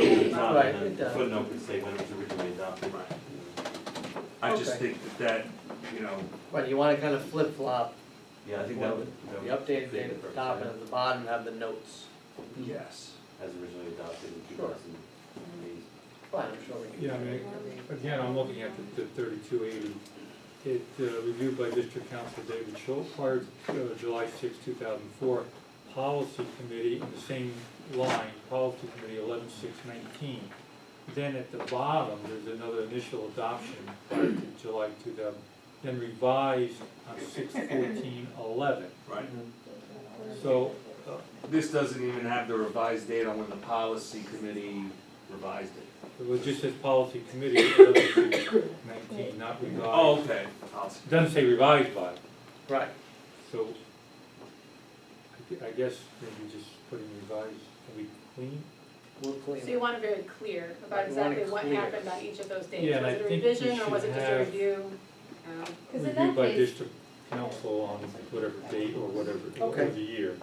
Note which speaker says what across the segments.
Speaker 1: down,
Speaker 2: Right,
Speaker 1: and
Speaker 2: it
Speaker 1: the
Speaker 2: does.
Speaker 1: footnote could say when it was originally adopted.
Speaker 3: I just
Speaker 2: Okay.
Speaker 3: think that that, you know,
Speaker 2: Right, you wanna kind of flip flop,
Speaker 1: Yeah, I think that would, that
Speaker 2: the
Speaker 1: would.
Speaker 2: updated
Speaker 1: fit
Speaker 2: date at the
Speaker 1: perfect,
Speaker 2: top and
Speaker 1: yeah.
Speaker 2: at the bottom have the notes.
Speaker 3: yes.
Speaker 1: As originally adopted in two
Speaker 2: Sure.
Speaker 1: thousand eight.
Speaker 2: Fine, I'm sure we can.
Speaker 4: Yeah, I mean, Again, I'm looking at the thirty-two eighty. It, uh, reviewed by District Council David Schultz, prior to uh, July 6, thousand four. Policy Committee, in the same line, Policy Committee eleven six nineteen. Then at the bottom, there's another initial adoption prior to July two thousand, then revised on six fourteen eleven.
Speaker 3: Right.
Speaker 2: Mm-hmm.
Speaker 4: So, uh,
Speaker 3: This doesn't even have the revised date on when the policy committee revised it.
Speaker 4: it was just as Policy Committee eleven six nineteen, not revised.
Speaker 3: Oh, okay. Policy.
Speaker 4: Doesn't say revised by.
Speaker 2: Right,
Speaker 4: So, I gue- I guess maybe just putting revised, can we clean?
Speaker 2: we'll clean.
Speaker 5: So you want it very clear
Speaker 2: Right,
Speaker 5: about
Speaker 2: you want
Speaker 5: exactly
Speaker 2: it
Speaker 5: what
Speaker 2: clear.
Speaker 5: happened on each of those dates.
Speaker 4: Yeah, and I
Speaker 5: Was it a
Speaker 4: think we
Speaker 5: revision or was
Speaker 4: should
Speaker 5: it just a
Speaker 4: have-
Speaker 5: review? Um,
Speaker 6: Because in that
Speaker 4: Reviewed by
Speaker 6: case,
Speaker 4: district council on whatever date or whatever,
Speaker 2: Okay.
Speaker 4: or the year,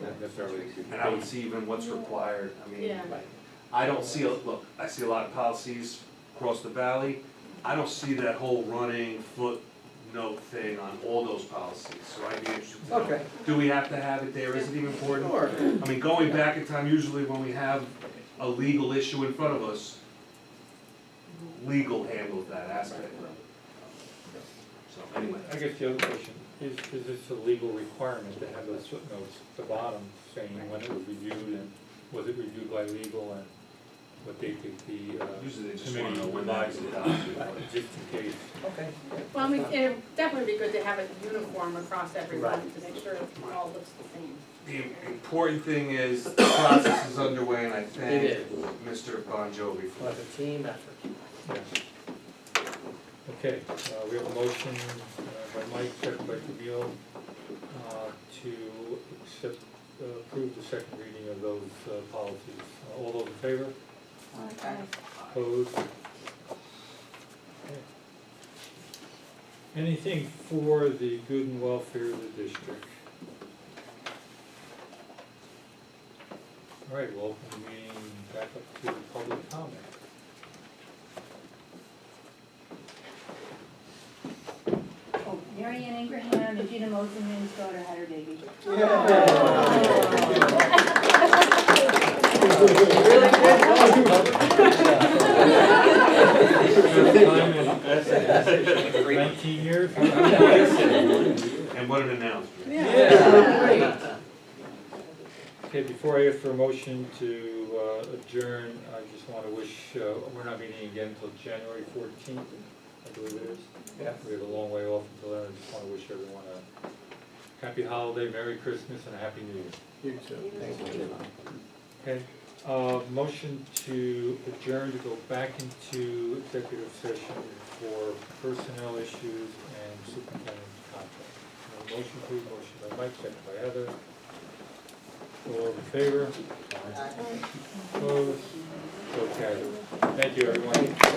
Speaker 4: not necessarily.
Speaker 3: And I would see even what's required, I mean,
Speaker 5: Yeah,
Speaker 2: Right,
Speaker 3: I don't see, a- look, I see a lot of policies across the valley. I don't see that whole running footnote thing on all those policies, so I'd be interested to know.
Speaker 2: okay,
Speaker 3: Do we have to have it there, is it even important?
Speaker 2: sure,
Speaker 3: I mean, going back in time, usually when we have a legal issue in front of us, legal handles that aspect of it. So anyway,
Speaker 4: I guess the other question, is, is this a legal requirement to have those footnotes at the bottom saying when it was reviewed and was it reviewed by legal and what date the, the, uh,
Speaker 3: usually they just wanna know
Speaker 4: Committee
Speaker 3: when that was adopted.
Speaker 2: Right.
Speaker 4: just in case.
Speaker 2: okay.
Speaker 5: well, I mean, it'd definitely be good to have it uniform across everyone
Speaker 2: Right.
Speaker 5: to make sure it all looks the same.
Speaker 3: The important thing is, the process is underway, and I
Speaker 2: It
Speaker 3: thank
Speaker 2: is,
Speaker 3: Mr. Bon Jovi for
Speaker 2: like a team effort.
Speaker 4: Yeah. Okay, uh, we have a motion uh, by Mike, second by Camille, uh, to accept, uh, approve the second reading of those uh, policies. Uh, All those in favor? Opposed? Okay. Anything for the good and welfare of the district? All right, we'll open the meeting back up to public comment.
Speaker 6: oh, Mary Ann Ingraham and Gina Moselman's daughter had her baby.
Speaker 2: Really good,
Speaker 4: Time in
Speaker 1: Great.
Speaker 4: Nineteen years?
Speaker 3: And what an announcement.
Speaker 2: Yeah.
Speaker 4: Okay, before I ask for a motion to uh, adjourn, I just want to wish, uh, we're not meeting again until January fourteenth, I believe it is.
Speaker 2: Yeah.
Speaker 4: We have a long way off until then, I just want to wish everyone a happy holiday, Merry Christmas, and a Happy New Year.
Speaker 2: You too, thank you.
Speaker 4: Okay, uh, motion to adjourn to go back into executive session for personnel issues and superintendent's contract. Uh, Motion please, motion by Mike, second by Heather. All in favor? Opposed? So carried. Thank you, everyone.